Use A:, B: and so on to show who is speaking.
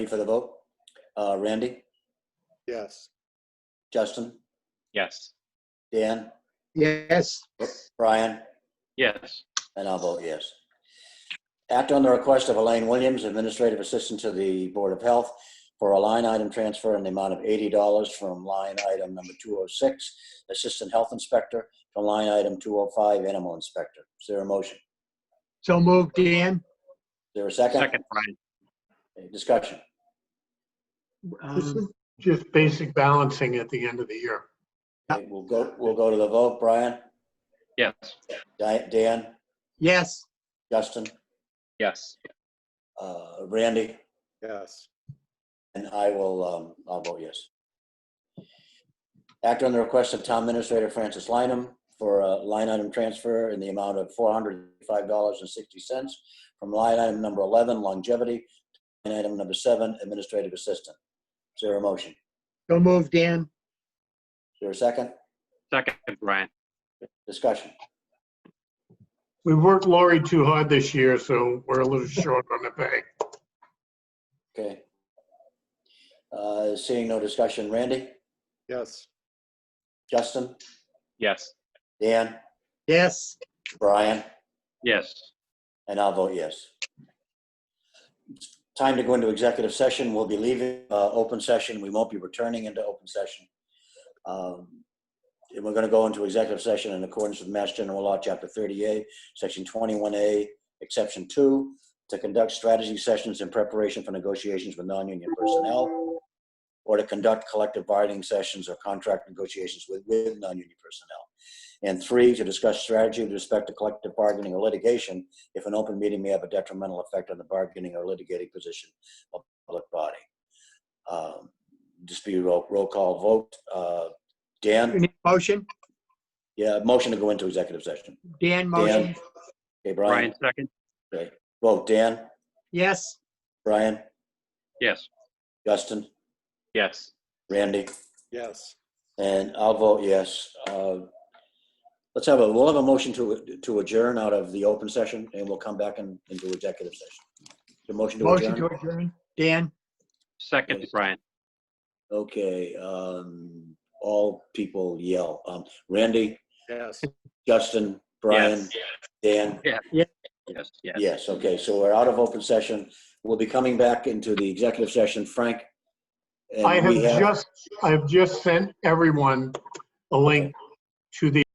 A: Ready for the vote? Uh, Randy,
B: Yes.
A: Justin,
C: Yes.
A: Dan,
B: Yes.
A: Brian,
C: Yes.
A: and I'll vote yes. Act on the request of Elaine Williams, Administrative Assistant to the Board of Health, for a line item transfer in the amount of $80 from line item number 206, Assistant Health Inspector, to line item 205, Animal Inspector. Is there a motion? Is
B: So moved, Dan.
A: there a second?
C: Second, Brian.
A: Any Discussion.
D: This is
B: Um,
D: just basic balancing at the end of the year.
A: Okay, We'll go, we'll go to the vote. Brian,
C: Yes.
A: Di- Dan,
B: Yes.
A: Justin,
C: Yes.
A: uh, Randy?
B: Yes.
A: And I will, um, I'll vote yes. Act on the request of Town Administrator Francis Lineham for a line item transfer in the amount of four hundred five dollars and sixty cents from line item number eleven longevity to line item number seven administrative assistant. Is there a motion? Is
B: So moved, Dan.
A: there a second?
C: Second, Brian.
A: Discussion.
D: We worked Lori too hard this year, so we're a little short on the pay.
A: Okay. Uh, seeing no discussion, Randy,
B: Yes.
A: Justin,
C: Yes.
A: Dan,
B: Yes.
A: Brian?
C: Yes.
A: And I'll vote yes. Time to go into executive session. We'll be leaving uh, open session. We won't be returning into open session. Um, And we're going to go into executive session in accordance with Mass General Law, Chapter 38, Section 21A, Exception 2, to conduct strategy sessions in preparation for negotiations with non-union personnel or to conduct collective bargaining sessions or contract negotiations with, with non-union personnel. And three, to discuss strategy with respect to collective bargaining or litigation if an open meeting may have a detrimental effect on the bargaining or litigating position of the public body. Um, Just be roll, roll call vote. Uh,
B: You
A: Dan,
B: need a Motion?
A: yeah, motion to go into executive session.
B: Dan, motion?
A: Dan. Okay, Brian,
C: Brian, second.
A: vote. Dan,
B: Yes.
A: Brian,
C: Yes.
A: Justin,
C: Yes.
A: Randy,
D: Yes.
A: and I'll vote yes. Uh, Let's have a, we'll have a motion to, to adjourn out of the open session and we'll come back in, into executive session. The motion to
B: Motion to
A: adjourn.
B: adjourn? Dan?
C: Second, Brian.
A: Okay, um, all people yell. Um, Randy,
D: Yes.
A: Justin, Brian,
C: Yes.
A: Dan.
C: Yes. Yes.
A: Yes, okay, so we're out of open session. We'll be coming back into the executive session. Frank? and
D: I have
A: we
D: just, I've just sent everyone a link to the